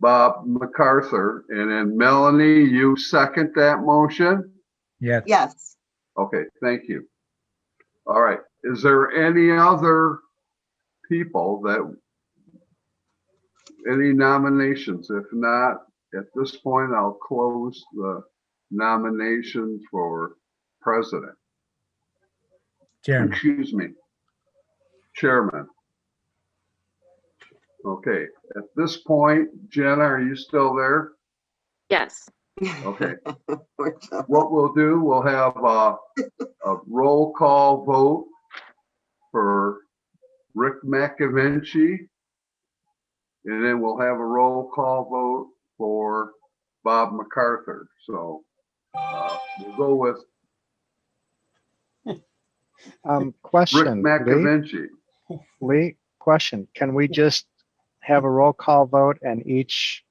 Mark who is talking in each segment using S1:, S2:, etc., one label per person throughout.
S1: Bob MacArthur, and then Melanie, you second that motion?
S2: Yes,
S3: Yes.
S1: Okay, thank you. All right, is there any other people that, any nominations? If not, at this point, I'll close the nominations for president.
S2: Chairman.
S1: Excuse me. Chairman. Okay, at this point, Jenna, are you still there?
S4: Yes.
S1: Okay,
S3: We're just-
S1: what we'll do, we'll have a, a roll call vote for Rick McAvinci. And then we'll have a roll call vote for Bob MacArthur. So uh, we'll go with
S5: Um,
S1: Rick
S5: question, Lee,
S1: McAvinci.
S5: Lee, question, can we just have a roll call vote and each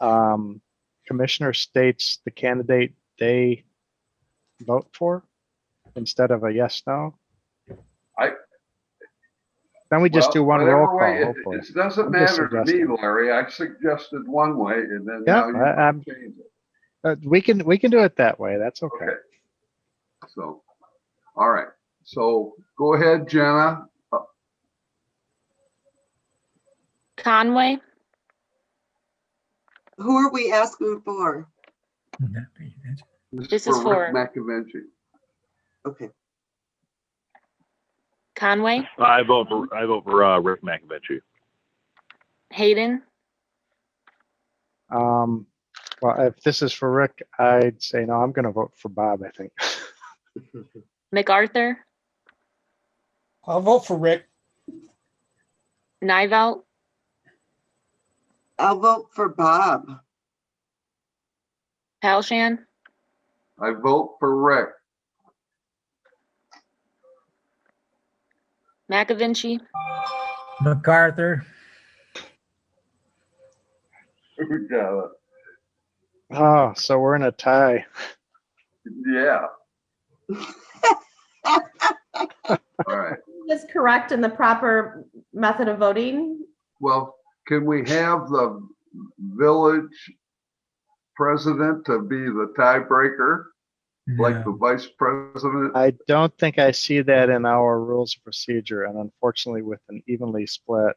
S5: um, commissioner states the candidate they vote for instead of a yes, no?
S1: I-
S5: Then we just do
S1: Well,
S5: one roll
S1: whatever way,
S5: call,
S1: it-
S5: hopefully.
S1: It doesn't
S5: I'm just
S1: matter to me,
S5: suggesting.
S1: Larry. I suggested one way and then
S5: Yeah,
S1: now you
S5: I- I'm-
S1: change it.
S5: Uh, We can, we can do it that way, that's okay.
S1: Okay. So, all right. So go ahead, Jenna.
S4: Conway,
S3: Who are we asking for?
S4: This is
S1: Rick McAvinci.
S3: Okay,
S4: Conway,
S6: I vote for, I vote for, uh, Rick McAvinci.
S4: Hayden,
S5: Um, well, if this is for Rick, I'd say, no, I'm gonna vote for Bob, I think.
S4: MacArthur,
S7: I'll vote for Rick.
S4: Nivell,
S3: I'll vote for Bob.
S4: Palshan,
S1: I vote for Rick.
S4: McAvinci,
S2: MacArthur,
S1: Yeah,
S5: Oh, so we're in a tie.
S1: Yeah. All right.
S8: Is correct in the proper method of voting?
S1: Well, can we have the village president to be the tiebreaker, like the
S2: no.
S1: vice president?
S5: I don't think I see that in our rules of procedure, and unfortunately, with an evenly split,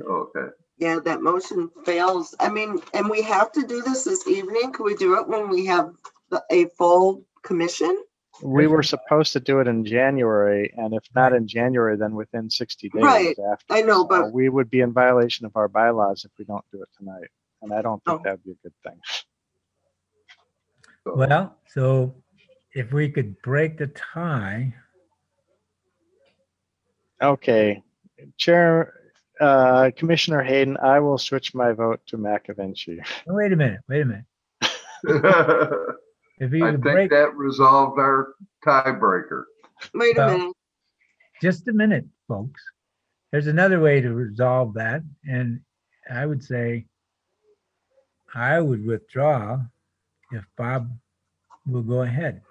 S1: Okay.
S3: Yeah, that motion fails. I mean, and we have to do this this evening. Can we do it when we have the- a full commission?
S5: we were supposed to do it in January, and if not in January, then within 60 days
S3: Right,
S5: after.
S3: I know,
S5: So
S3: but-
S5: We would be in violation of our bylaws if we don't do it tonight, and I don't
S3: Oh.
S5: think that'd be a good thing.
S1: so-
S2: Well, so if we could break the tie,
S5: Okay, Chair, uh, Commissioner Hayden, I will switch my vote to McAvinci.
S2: oh, wait a minute, wait a minute.
S1: I
S2: If we could
S1: think
S2: break,
S1: that resolved our tiebreaker.
S3: Wait a
S2: Well-
S3: minute.
S2: just a minute, folks. There's another way to resolve that, and I would say I would withdraw if Bob will go ahead.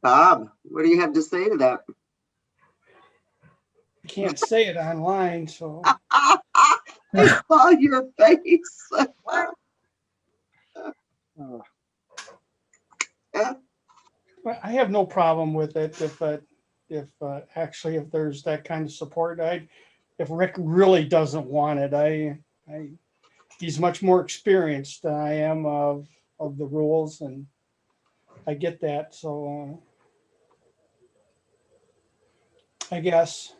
S3: Bob, what do you have to say to that?
S7: Can't say it online, so
S3: I saw your face.
S5: Uh,
S7: but I have no problem with it if, uh, if, uh, actually, if there's that kind of support, I, if Rick really doesn't want it, I, I, he's much more experienced than I am of, of the rules and I get that, so, uh, I guess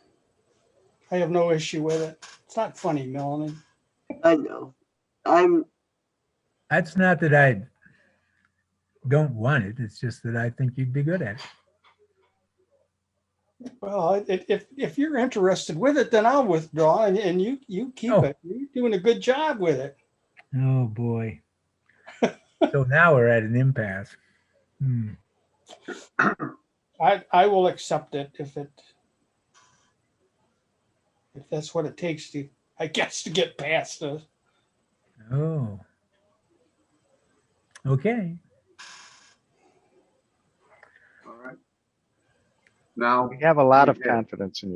S7: I have no issue with it. It's not funny, Melanie.
S3: I know. I'm,
S2: That's not that I don't want it, it's just that I think you'd be good at it.
S7: Well, i- if, if, if you're interested with it, then I'll withdraw and, and you, you keep
S2: Oh.
S7: it. You're doing a good job with it.
S2: Oh, boy. So now we're at an impasse. Hmm.
S7: I, I will accept it if it, if that's what it takes to, I guess, to get past this.
S2: Oh. Okay.
S1: All right. Now,
S5: We have a lot of
S1: Yeah.
S5: confidence in you.